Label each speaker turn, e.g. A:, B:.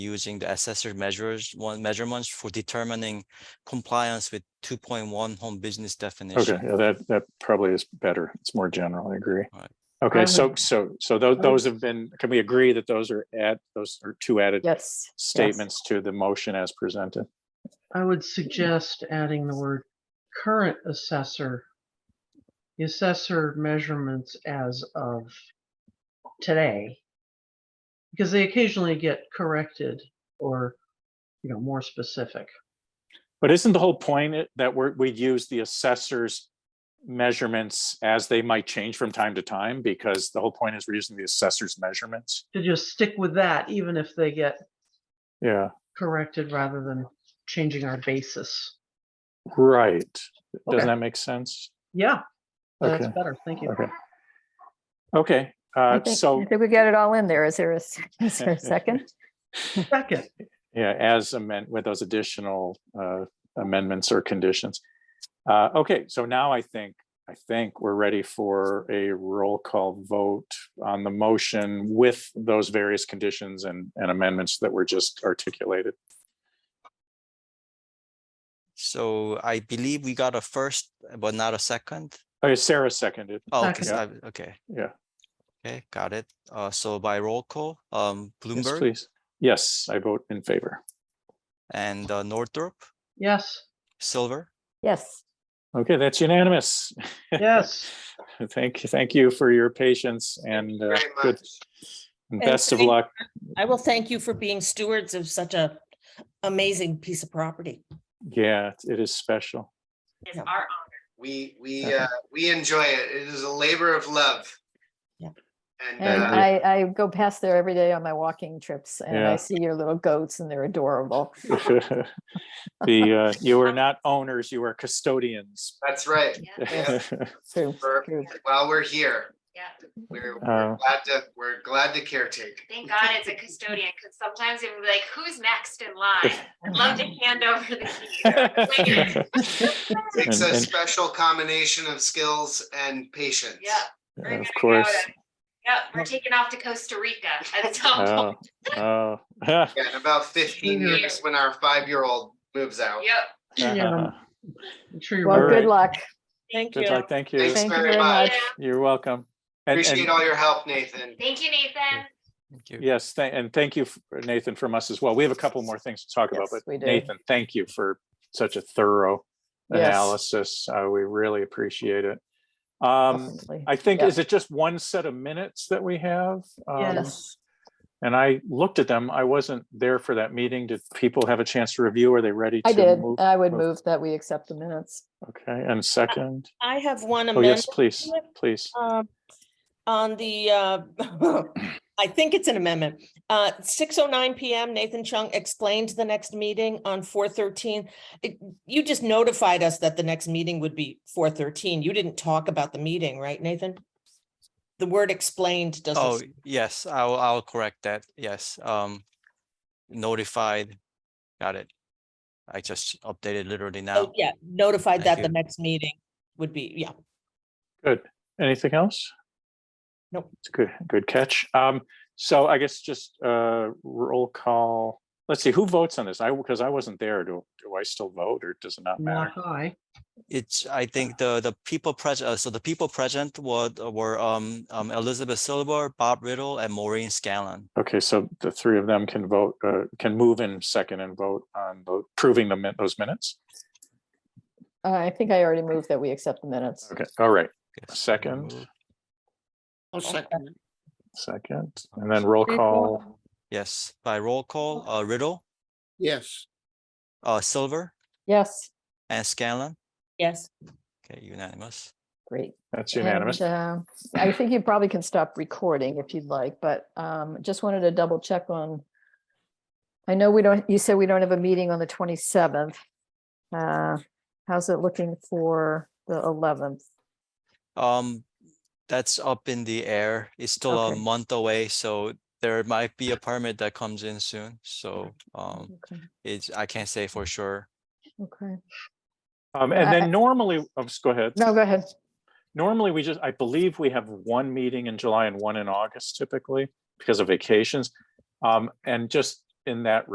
A: using the assessor measures, one measurements for determining compliance with two point one home business
B: Okay,
A: definition.
B: yeah, that, that probably is better. It's more general, I agree.
A: Right.
B: Okay,
C: I
B: so, so, so those, those have been, can we agree that those are add, those are two added
C: Yes.
B: statements to the motion as presented?
D: I would suggest adding the word current assessor. The assessor measurements as of today. Because they occasionally get corrected or, you know, more specific.
B: But isn't the whole point it- that we're, we use the assessor's measurements as they might change from time to time? Because the whole point is we're using the assessor's measurements.
D: To just stick with that, even if they get
B: Yeah,
D: corrected rather than changing our basis.
B: right.
D: Okay.
B: Doesn't that make sense?
D: Yeah, that's
B: Okay,
D: better. Thank you.
B: okay. Okay,
C: I
B: uh,
C: think,
B: so,
C: I think we got it all in there. Is there a, s- is there a second?
D: Second,
B: yeah, as amend, with those additional uh, amendments or conditions. Uh, Okay, so now I think, I think we're ready for a roll call vote on the motion with those various conditions and and amendments that were just articulated.
A: So I believe we got a first, but not a second.
B: Okay, Sarah seconded.
A: Oh, okay, so
B: Second.
A: I- okay,
B: Yeah,
A: okay, got it. Uh, so by roll call, um,
B: yes,
A: Bloomberg
B: please. Yes, I vote in favor.
A: and uh, Northrop,
D: yes,
A: Silver.
C: Yes.
B: Okay, that's unanimous.
D: yes.
B: Thank you, thank you for your patience and uh, good. and
E: And
B: Best of
E: thank-
B: luck.
E: I will thank you for being stewards of such a amazing piece of property.
B: Yeah, it is special.
E: It's our
F: We, we,
B: Okay.
F: uh, we enjoy it. It is a labor of love.
E: Yeah.
F: And,
C: And
F: uh,
C: I, I go past there every day on my walking trips and
B: Yeah.
C: I see your little goats and they're adorable.
B: the uh, you are not owners, you are custodians.
F: that's right.
C: Yes, True,
F: For-
C: true.
F: While we're here,
G: Yeah,
F: we're,
B: Uh,
F: we're glad to, we're glad to caretake.
G: thank God it's a custodian, because sometimes it'd be like, who's next in line? I'd love to hand over the key.
F: Takes
B: And-
F: a
B: and-
F: special combination of skills and patience.
G: Yeah. we're
B: And
G: gonna
B: Of
G: go
B: course.
G: to- Yep, we're taking off to Costa Rica at some
B: Oh,
G: point.
B: oh.
F: Yeah, in about fifteen
D: Sure.
F: years, when our five-year-old moves out.
G: Yep.
D: Yeah. I'm sure you're
C: Well,
B: All
D: right.
C: good
B: right.
C: luck.
E: Thank
B: Good
E: you.
B: luck, thank you.
F: Thanks
C: Thank you
F: very
C: very
F: much.
C: much.
G: Yeah.
B: You're welcome. And- and-
F: Appreciate all your help, Nathan.
G: Thank you, Nathan.
A: Thank you.
B: Yes, tha- and thank you, f- Nathan, from us as well. We have a couple more things to talk about,
C: Yes,
B: but
C: we do.
B: Nathan, thank you for such a thorough
C: Yes.
B: analysis. Uh, We really appreciate it. Um,
C: Definitely.
B: I think,
C: Yeah.
B: is it just one set of minutes that we have? Um,
D: Yes.
B: And I looked at them. I wasn't there for that meeting. Did people have a chance to review? Are they ready to?
C: I did. Uh,
B: move?
C: I would
B: move.
C: move that we accept the minutes.
B: Okay, and second,
E: I have one
B: oh, yes,
E: amendment.
B: please, please.
E: um, On the, uh, I think it's an amendment. Uh, 6:09 PM, Nathan Chung explained the next meeting on 4:13. It- You just notified us that the next meeting would be 4:13. You didn't talk about the meeting, right, Nathan? The word explained doesn't.
A: Oh, yes, I'll, I'll correct that. Yes, um, notified. Got it. I just updated literally now.
E: Oh, yeah, notified
A: Thank
E: that the
A: you.
E: next meeting would be, yeah.
B: Good. Anything else?
E: Nope.
B: It's a good, good catch. Um, so I guess just uh roll call. Let's see, who votes on this? I, because I wasn't there. Do, do I still vote or does it not matter?
D: Not high.
A: It's, I
C: Ah.
A: think the, the people present, uh, so the people present were, were, um, um, Elizabeth Silver, Bob Riddle and Maureen Scanlon.
B: Okay, so the three of them can vote, uh, can move in second and vote on the- approving the, min- those minutes?
C: Uh, I think I already moved that we accept the minutes.
B: Okay, all right,
A: Yes,
B: Second.
A: remove.
B: second, and then roll call.
A: Yes, by roll call, uh, Riddle. Yes. Uh, Silver
C: Yes,
A: and Scanlon.
E: Yes.
A: Okay, unanimous.
C: great.
B: That's
C: And,
B: unanimous.
C: uh, I think you probably can stop recording if you'd like, but um, just wanted to double check on. I know we don't, you said we don't have a meeting on the 27th. Uh, How's it looking for the 11th?
A: Um, that's up in the air. It's still a
C: Okay.
A: month away, so there might be a permit that comes in soon, so, um,
C: Okay.
A: it's, I can't say for sure.
C: Okay.
B: Um, and
C: I-
B: then normally, oh, just go ahead.
C: No, go ahead.
B: Normally, we just, I believe we have one meeting in July and one in August typically because of vacations. Um, and just in that